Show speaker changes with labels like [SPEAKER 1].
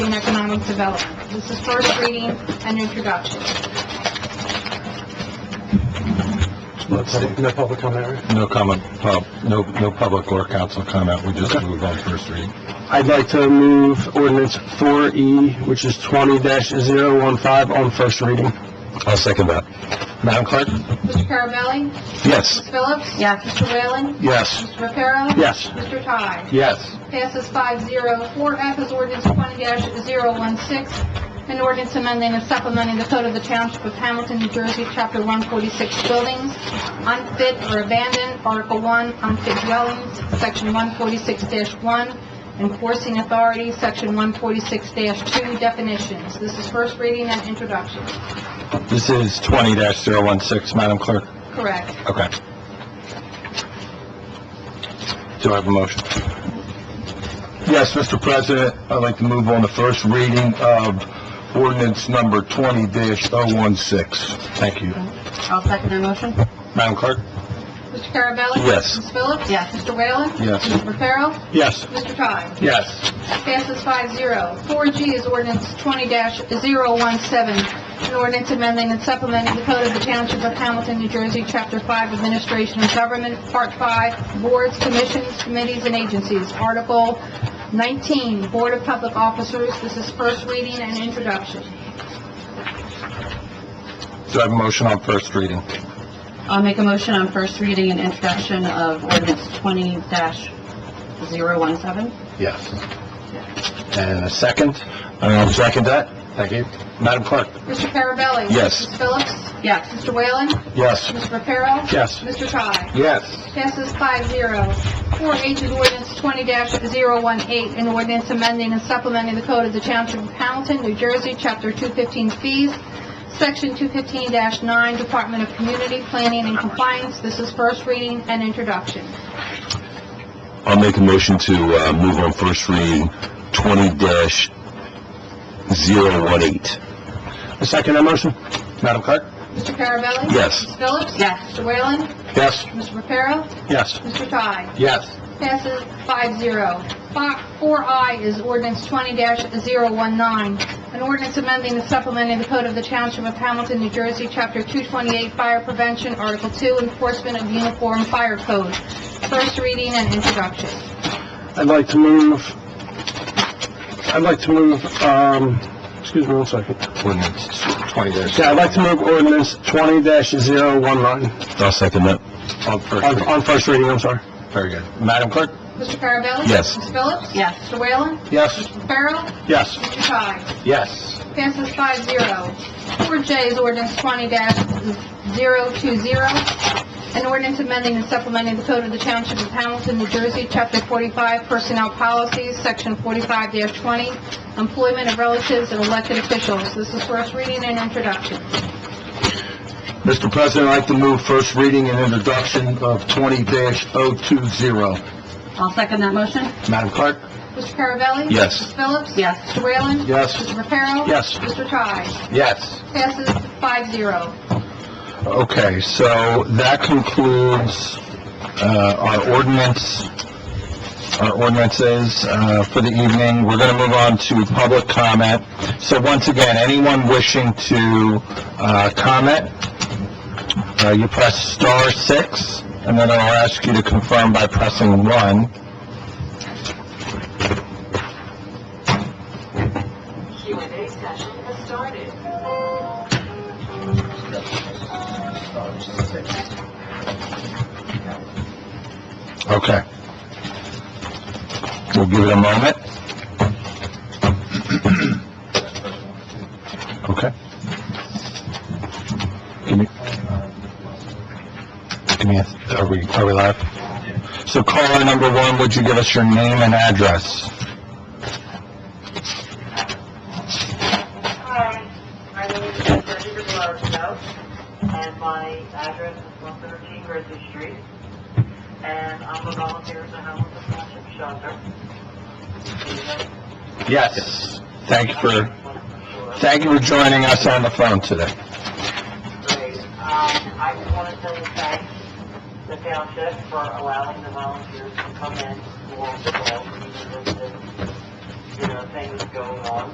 [SPEAKER 1] economic development. This is first reading and introduction.
[SPEAKER 2] No public- no public comment, right?
[SPEAKER 3] No comment, pub, no, no public or council comment, we just moved on first reading.
[SPEAKER 2] I'd like to move ordinance 4E, which is 20-015, on first reading.
[SPEAKER 3] I'll second that. Madam Clerk?
[SPEAKER 1] Mr. Carabelli?
[SPEAKER 3] Yes.
[SPEAKER 1] Ms. Phillips?
[SPEAKER 4] Yes.
[SPEAKER 1] Mr. Whalen?
[SPEAKER 3] Yes.
[SPEAKER 1] Mr. Reparo?
[SPEAKER 2] Yes.
[SPEAKER 1] Mr. Ty?
[SPEAKER 3] Yes.
[SPEAKER 1] Passes five zero. Four F is ordinance twenty 16 an ordinance amending and supplementing the code of the Township of Hamilton, New Jersey, Chapter one forty-six buildings, unfit or abandoned, Article one, unfit dwellings, Section one forty-six one, enforcing authority, Section one forty-six two, definitions. This is first reading and introduction.
[SPEAKER 3] This is twenty 16 Madam Clerk?
[SPEAKER 1] Correct.
[SPEAKER 3] Okay. Do I have a motion?
[SPEAKER 5] Yes, Mr. President, I'd like to move on the first reading of ordinance number twenty oh 16
[SPEAKER 3] Thank you.
[SPEAKER 4] I'll second the motion.
[SPEAKER 3] Madam Clerk?
[SPEAKER 1] Mr. Carabelli?
[SPEAKER 3] Yes.
[SPEAKER 1] Ms. Phillips?
[SPEAKER 4] Yes.
[SPEAKER 1] Mr. Whalen?
[SPEAKER 5] Yes.
[SPEAKER 1] Mr. Reparo?
[SPEAKER 2] Yes.
[SPEAKER 1] Mr. Ty?
[SPEAKER 2] Yes.
[SPEAKER 1] Passes five zero. Four G is ordinance twenty 17 an ordinance amending and supplementing the code of the Township of Hamilton, New Jersey, Chapter Five, Administration of Government, Part Five, Boards, Commissions, Committees, and Agencies, Article nineteen, Board of Public Officers. This is first reading and introduction.
[SPEAKER 3] Do I have a motion on first reading?
[SPEAKER 4] I'll make a motion on first reading and introduction of ordinance twenty dash zero one seven.
[SPEAKER 5] Yes. And a second?
[SPEAKER 3] I'll second that.
[SPEAKER 5] Thank you.
[SPEAKER 3] Madam Clerk?
[SPEAKER 1] Mr. Carabelli?
[SPEAKER 3] Yes.
[SPEAKER 1] Ms. Phillips?
[SPEAKER 4] Yes.
[SPEAKER 1] Mr. Whalen?
[SPEAKER 5] Yes.
[SPEAKER 1] Mr. Reparo?
[SPEAKER 2] Yes.
[SPEAKER 1] Mr. Ty?
[SPEAKER 5] Yes.
[SPEAKER 1] Passes five zero. Four H is ordinance twenty 18 an ordinance amending and supplementing the code of the Township of Hamilton, New Jersey, Chapter two fifteen fees, Section two fifteen nine, Department of Community Planning and Compliance. This is first reading and introduction.
[SPEAKER 5] I'll make a motion to, uh, move on first reading twenty 18
[SPEAKER 2] I second that motion.
[SPEAKER 3] Madam Clerk?
[SPEAKER 1] Mr. Carabelli?
[SPEAKER 5] Yes.
[SPEAKER 1] Ms. Phillips?
[SPEAKER 4] Yes.
[SPEAKER 1] Mr. Whalen?
[SPEAKER 5] Yes.
[SPEAKER 1] Mr. Reparo?
[SPEAKER 2] Yes.
[SPEAKER 1] Mr. Ty?
[SPEAKER 5] Yes.
[SPEAKER 1] Passes five zero. Four I is ordinance twenty 19 an ordinance amending and supplementing the code of the Township of Hamilton, New Jersey, Chapter two twenty-eight, Fire Prevention, Article two, Enforcement of Uniform Fire Code. First reading and introduction.
[SPEAKER 2] I'd like to move, I'd like to move, um, excuse me one second.
[SPEAKER 3] Ordinance twenty dash.
[SPEAKER 2] Yeah, I'd like to move ordinance 20-019
[SPEAKER 5] I'll second that.
[SPEAKER 3] On first
[SPEAKER 2] on,
[SPEAKER 3] reading.
[SPEAKER 2] on first reading, I'm sorry.
[SPEAKER 3] Very good. Madam Clerk?
[SPEAKER 1] Mr. Carabelli?
[SPEAKER 5] Yes.
[SPEAKER 1] Ms. Phillips?
[SPEAKER 4] Yes.
[SPEAKER 1] Mr. Whalen?
[SPEAKER 2] Yes.
[SPEAKER 1] Mr. Farrell?
[SPEAKER 2] Yes.
[SPEAKER 1] Mr. Ty?
[SPEAKER 5] Yes.
[SPEAKER 1] Passes five zero. Four J is ordinance twenty 20 an ordinance amending and supplementing the code of the Township of Hamilton, New Jersey, Chapter forty-five, Personnel Policies, Section forty-five twenty, Employment of Relatives and Elected Officials. This is first reading and introduction.
[SPEAKER 5] Mr. President, I'd like to move first reading and introduction of twenty 20
[SPEAKER 4] I'll second that motion.
[SPEAKER 5] Madam Clerk?
[SPEAKER 1] Mr. Carabelli?
[SPEAKER 5] Yes.
[SPEAKER 1] Ms. Phillips?
[SPEAKER 4] Yes.
[SPEAKER 1] Mr. Whalen?
[SPEAKER 5] Yes.
[SPEAKER 1] Mr. Reparo?
[SPEAKER 2] Yes.
[SPEAKER 1] Mr. Ty?
[SPEAKER 5] Yes.
[SPEAKER 1] Passes five zero.
[SPEAKER 5] Okay, so that concludes uh, our ordinance, our ordinances uh, for the evening. We're going to move on to public comment. So once again, anyone wishing to uh, comment, uh, you press star six, and then I'll ask you to confirm by pressing one.
[SPEAKER 6] Q&A session has started.
[SPEAKER 5] Okay. We'll give it a moment. Okay. Give me, give me, a- are we, are we live? So caller number one, would you give us your name and address?
[SPEAKER 7] Hi, my name is Jessica Delarosco, and my address is 113 Grizzly Street, and I'm a volunteer in the homeless Township Shelter.
[SPEAKER 5] Yes. Thank you for, thank you for joining us on the phone today.
[SPEAKER 7] Great. Um, I just want to tell you thanks, the township, for allowing the volunteers to come in for, the help, because, you know, things going on.